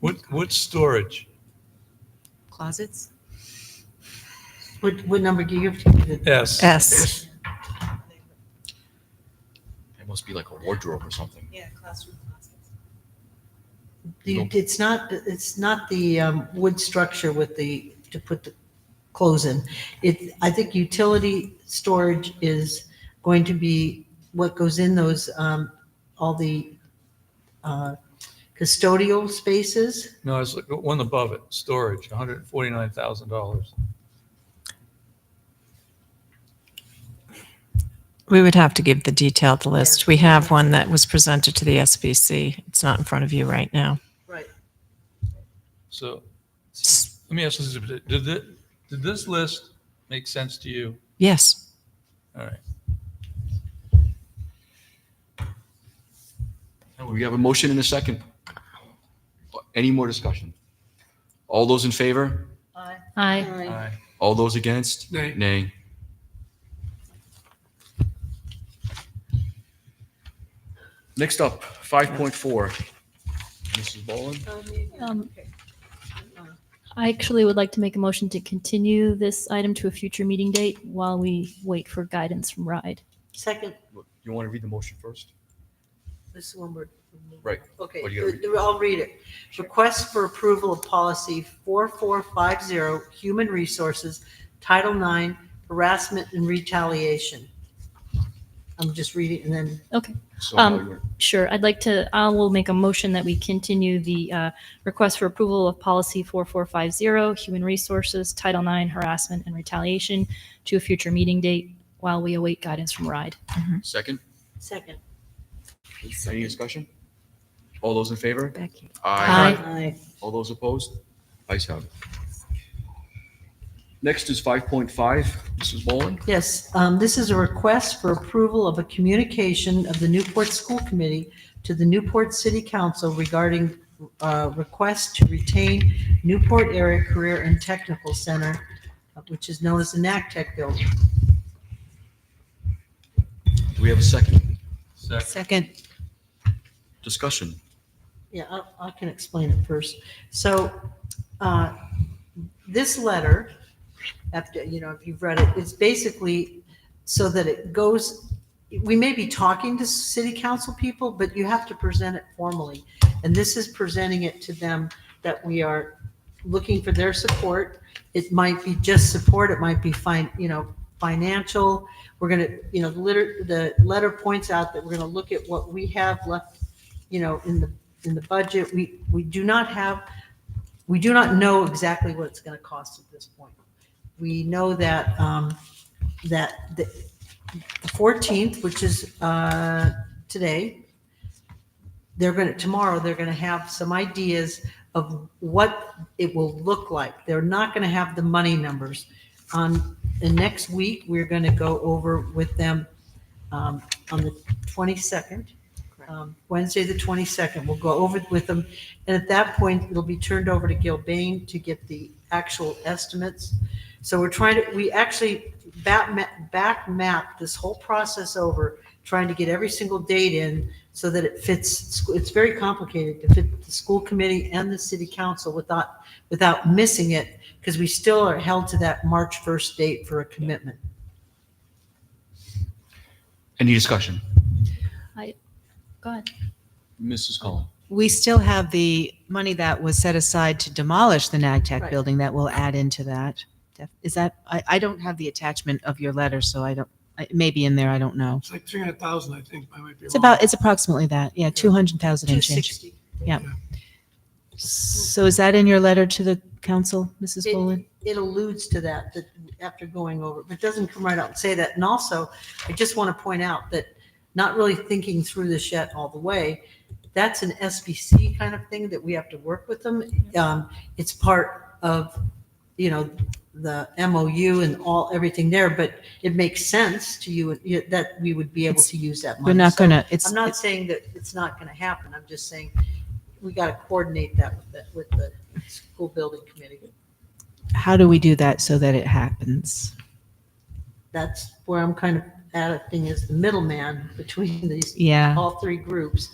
What, what storage? Closets? What, what number do you have to give it? S. S. It must be like a wardrobe or something. Yeah, classroom closets. The- It's not, it's not the um, wood structure with the, to put the clothes in. It, I think utility storage is going to be what goes in those, um, all the uh, custodial spaces. No, it's like one above it, storage, $149,000. We would have to give the detailed list. We have one that was presented to the SBC. It's not in front of you right now. Right. So S- let me ask this, did, thi- did this list make sense to you? Yes. All right. We have a motion and a second. Any more discussion? All those in favor? Aye. Aye. All those against? Nay. Nay. Next up, 5.4. Mrs. Boland? Um, I actually would like to make a motion to continue this item to a future meeting date while we wait for guidance from RIDE. Second, You want to read the motion first? this is one word. Right. Okay, What do you gotta th- I'll read it. Request for approval of policy 4450, Human Resources, Title IX, Harassment and Retaliation. I'm just reading and then, Okay, So, uh, Um, you're- sure. I'd like to, I will make a motion that we continue the uh, request for approval of policy 4450, human resources, Title IX harassment and retaliation to a future meeting date while we await guidance from RIDE. Second? second. Any discussion? All those in favor? Becky. Aye. Aye. All those opposed? Ayes have it. Next is 5.5. Mrs. Boland? Yes, um, this is a request for approval of a communication of the Newport School Committee to the Newport City Council regarding uh, request to retain Newport Area Career and Technical Center, uh, which is known as the NACTech E building. Do we have a second? Second. Second. Discussion. Yeah, I, I can explain it first. So, uh, this letter, after, you know, if you've read it, it's basically so that it goes, we may be talking to city council people, but you have to present it formally. And this is presenting it to them that we are looking for their support. It might be just support, it might be fine, you know, financial. We're gonna, you know, the letter, the letter points out that we're gonna look at what we have left, you know, in the, in the budget. We, we do not have, we do not know exactly what it's gonna cost at this point. We know that, um, that the fourteenth, which is, uh, today, they're gonna, tomorrow, they're gonna have some ideas of what it will look like. They're not gonna have the money numbers. On, the next week, we're gonna go over with them, um, on the twenty-second, um, Wednesday, the twenty-second. We'll go over it with them. And at that point, it'll be turned over to Gil Bain to get the actual estimates. So we're trying to, we actually back, ma- back map this whole process over, trying to get every single date in so that it fits, it's very complicated to fit the school committee and the city council without, without missing it, because we still are held to that March 1st date for a commitment. Any discussion? Go ahead. Mrs. Cullen. We still have the money that was set aside to demolish the NAGTEC Right. building that will add into that. Def- Is that, I, I don't have the attachment of your letter, so I don't, I- it may be in there, I don't know. It's like three hundred thousand, I think. I might be It's wrong. about, it's approximately that, yeah, 200,000 and change. 260. So is that in your letter to the council, Mrs. It- Boland? It alludes to that, that after going over, it, but doesn't come right out and say that. And also, I just want to point out that not really thinking through this yet all the way, that's an SBC kind of thing that we have to work with them. Mm-hmm. Um, It's part of, you know, the MOU and all, everything there, but it makes sense to you you- that we would be able to use that money. We're not So going to, it's, I'm not saying that it's not going to happen. I'm just saying we got to coordinate that with the, with the school building committee. how do we do that so that it happens? that's where I'm kind of acting as the middleman between these, Yeah. all three groups